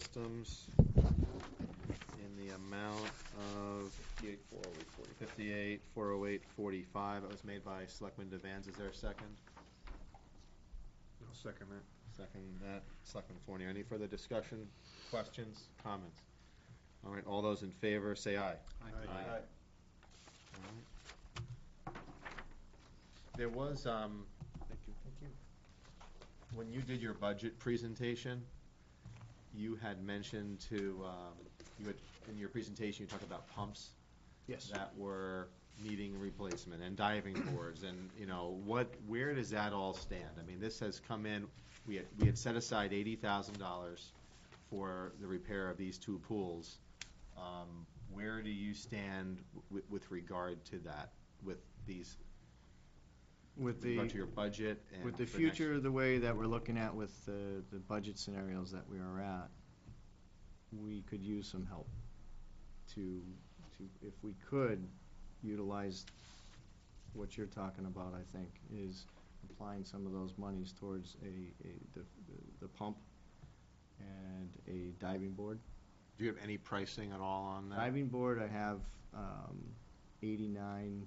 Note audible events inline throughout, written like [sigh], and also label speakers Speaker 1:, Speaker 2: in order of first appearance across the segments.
Speaker 1: systems in the amount of fifty-eight, four oh eight, forty-five. That was made by Selectman Devanz. Is there a second?
Speaker 2: I'll second that.
Speaker 1: Second that, Selectman Fornier. Any further discussion, questions, comments? All right, all those in favor, say aye. Aye. There was, um,
Speaker 2: Thank you.
Speaker 1: when you did your budget presentation, you had mentioned to, um, you had, in your presentation, you talked about pumps
Speaker 2: Yes.
Speaker 1: that were needing replacement and
Speaker 3: [clears throat]
Speaker 1: diving boards and, you know, what, where does that all stand? I mean, this has come in, we had, we had set aside eighty thousand dollars for the repair of these two pools. Um, Where do you stand with, with regard to that, with these,
Speaker 3: With
Speaker 1: with
Speaker 3: the,
Speaker 1: regard to your budget and?
Speaker 3: with the
Speaker 1: for next-
Speaker 3: future, the way that we're looking at with the, the budget scenarios that we are at, we could use some help to, to, if we could utilize what you're talking about, I think, is applying some of those monies towards a, a, the, the- the pump and a diving board.
Speaker 1: Do you have any pricing at all on that?
Speaker 3: Diving board, I have, um, eighty-nine,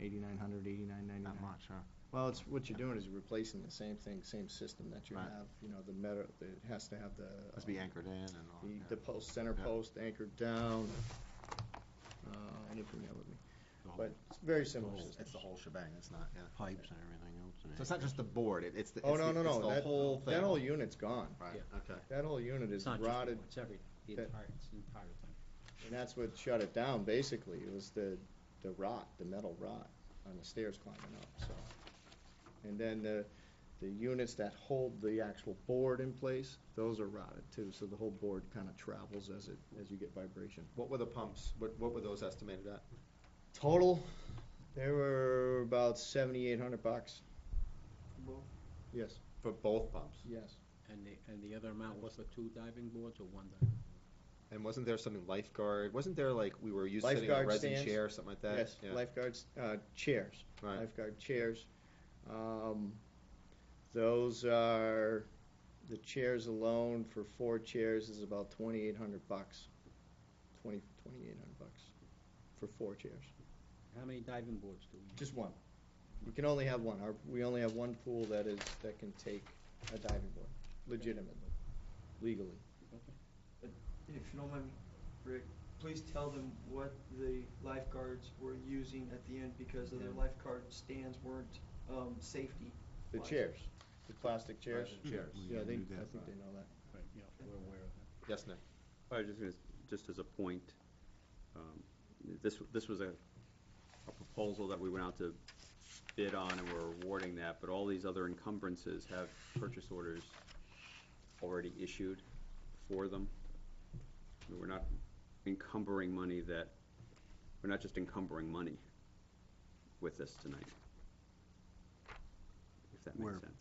Speaker 3: eighty-nine hundred, eighty-nine ninety-nine.
Speaker 1: Not much, huh?
Speaker 3: Well, it's, what you're doing is replacing the same thing, same system that you
Speaker 1: Right.
Speaker 3: have, you know, the metal, it has to have the.
Speaker 1: Must be
Speaker 3: um,
Speaker 1: anchored in and all.
Speaker 3: the-
Speaker 1: yeah.
Speaker 3: The post, center
Speaker 1: Yeah.
Speaker 3: post anchored down. Uh, I didn't bring that with me,
Speaker 1: The whole-
Speaker 3: but it's very
Speaker 1: the
Speaker 3: similar
Speaker 1: whole-
Speaker 3: system.
Speaker 1: It's the whole shebang, it's not, yeah.
Speaker 4: pipes and everything else. in
Speaker 1: So
Speaker 4: it.
Speaker 1: it's not just the board, it- it's the,
Speaker 3: Oh,
Speaker 1: it's
Speaker 3: no,
Speaker 1: the-
Speaker 3: no,
Speaker 1: it's
Speaker 3: no,
Speaker 1: the
Speaker 3: that,
Speaker 1: whole thing.
Speaker 3: that whole unit's gone.
Speaker 1: Right, okay.
Speaker 3: That whole unit
Speaker 5: It's
Speaker 3: is
Speaker 5: not just
Speaker 3: rotted
Speaker 5: one, It's every, the
Speaker 3: that-
Speaker 5: entire, it's the entire thing.
Speaker 3: And that's what shut it down, basically, it was the, the rot, the metal rot on the stairs climbing up, so. And then the, the units that hold the actual board in place, those are rotted too, so the whole board kind of travels as it, as you get vibration.
Speaker 1: What were the pumps, what, what were those estimated at?
Speaker 3: Total, they were about seventy-eight hundred bucks. Yes,
Speaker 1: For both pumps?
Speaker 3: yes.
Speaker 5: And the, and the other amount was for two diving boards or one diving?
Speaker 1: And wasn't there something lifeguard, wasn't there like, we were used sitting on a
Speaker 3: Lifeguard
Speaker 1: resin
Speaker 3: stands.
Speaker 1: chair or something like that?
Speaker 3: Yes,
Speaker 1: Yeah,
Speaker 3: lifeguards, uh, chairs.
Speaker 1: Right.
Speaker 3: Lifeguard chairs. Um, Those are, the chairs alone for four chairs is about twenty-eight hundred bucks. Twenty, twenty-eight hundred bucks for four chairs.
Speaker 5: How many diving boards do we?
Speaker 3: Just one. You can only have one. Our, we only have one pool that is, that can take a diving board legitimately, legally.
Speaker 6: If you don't mind, Rick, please tell them what the lifeguards were using at the end because of their lifeguard stands weren't, um, safety.
Speaker 3: The
Speaker 6: Why?
Speaker 3: chairs, the plastic chairs.
Speaker 1: Resin chairs.
Speaker 3: Yeah, they, I think
Speaker 4: Yeah.
Speaker 3: they know that.
Speaker 5: Right, yeah, we're aware of that.
Speaker 1: Yes, Nick?
Speaker 7: I was just gonna, just as a point, um, this, this was a, a proposal that we went out to bid on and we're awarding that, but all these other encumbrances have purchase orders already issued for them. And We're not encumbering money that, we're not just encumbering money with this tonight. If that
Speaker 4: We're-
Speaker 7: makes sense.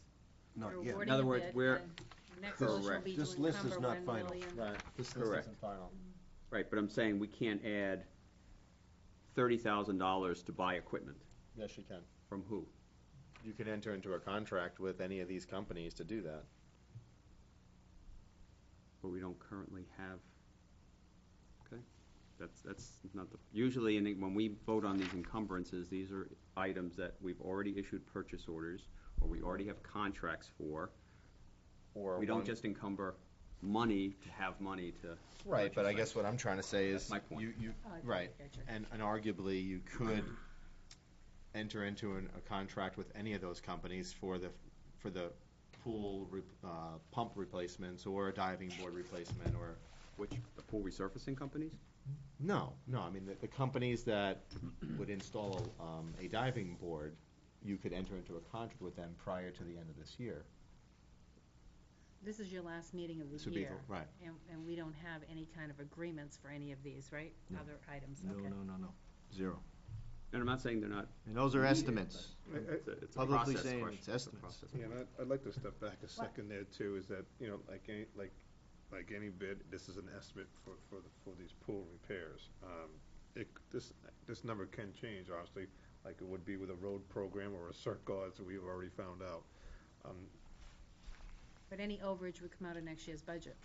Speaker 4: Not
Speaker 8: You're
Speaker 4: yet.
Speaker 8: awarding
Speaker 7: In other words,
Speaker 8: it,
Speaker 7: we're-
Speaker 8: the Next motion will
Speaker 7: Correct.
Speaker 8: be to
Speaker 4: This list is
Speaker 8: encumber
Speaker 4: not
Speaker 8: one
Speaker 4: final.
Speaker 8: million.
Speaker 1: Right. This, this
Speaker 7: Correct.
Speaker 1: isn't final.
Speaker 7: Right, but I'm saying we can't add thirty thousand dollars to buy equipment.
Speaker 1: Yes, you can.
Speaker 7: From who?
Speaker 1: You can enter into a contract with any of these companies to do that.
Speaker 7: But we don't currently have, okay? That's, that's not the, usually, in when we vote on these encumbrances, these are items that we've already issued purchase orders, or we already have contracts for.
Speaker 1: Or
Speaker 7: We don't
Speaker 1: one-
Speaker 7: just encumber money to have money to,
Speaker 1: Right, but I
Speaker 7: purchase
Speaker 1: guess what I'm trying to say is,
Speaker 7: That's my point.
Speaker 1: you, you,
Speaker 8: Oh, I
Speaker 1: right,
Speaker 8: gotcha.
Speaker 1: and, and arguably, you could enter into an, a contract with any of those companies for the, for the pool, re- uh, pump replacements, or a diving board replacement, or,
Speaker 7: which, the pool resurfacing companies?
Speaker 1: no, no, I mean, the, the companies that would install, um, a diving board, you could enter into a contract with them prior to the end of this year.
Speaker 8: This is your last meeting of
Speaker 1: This
Speaker 8: the
Speaker 1: would be
Speaker 8: year.
Speaker 1: the- right.
Speaker 8: And, and we don't have any kind of agreements for any of these, right?
Speaker 3: No.
Speaker 8: Other items,
Speaker 3: No,
Speaker 8: okay.
Speaker 3: no, no, no, zero.
Speaker 7: And I'm not saying they're not,
Speaker 3: And those are
Speaker 7: Yeah,
Speaker 3: estimates.
Speaker 7: it's a it's a
Speaker 3: Publicly
Speaker 7: process
Speaker 3: saying
Speaker 7: question.
Speaker 3: it's
Speaker 7: a
Speaker 3: estimates.
Speaker 7: process.
Speaker 2: Yeah, and I'd, I'd like to step back a second there too, is that, you know, like any, like, like any bid, this is an estimate for, for, the- for these pool repairs. Um, It, this, this number can change, obviously, like it would be with a road program or a circle, as we've already found out. Um,
Speaker 8: But any overage would come out of next year's budget.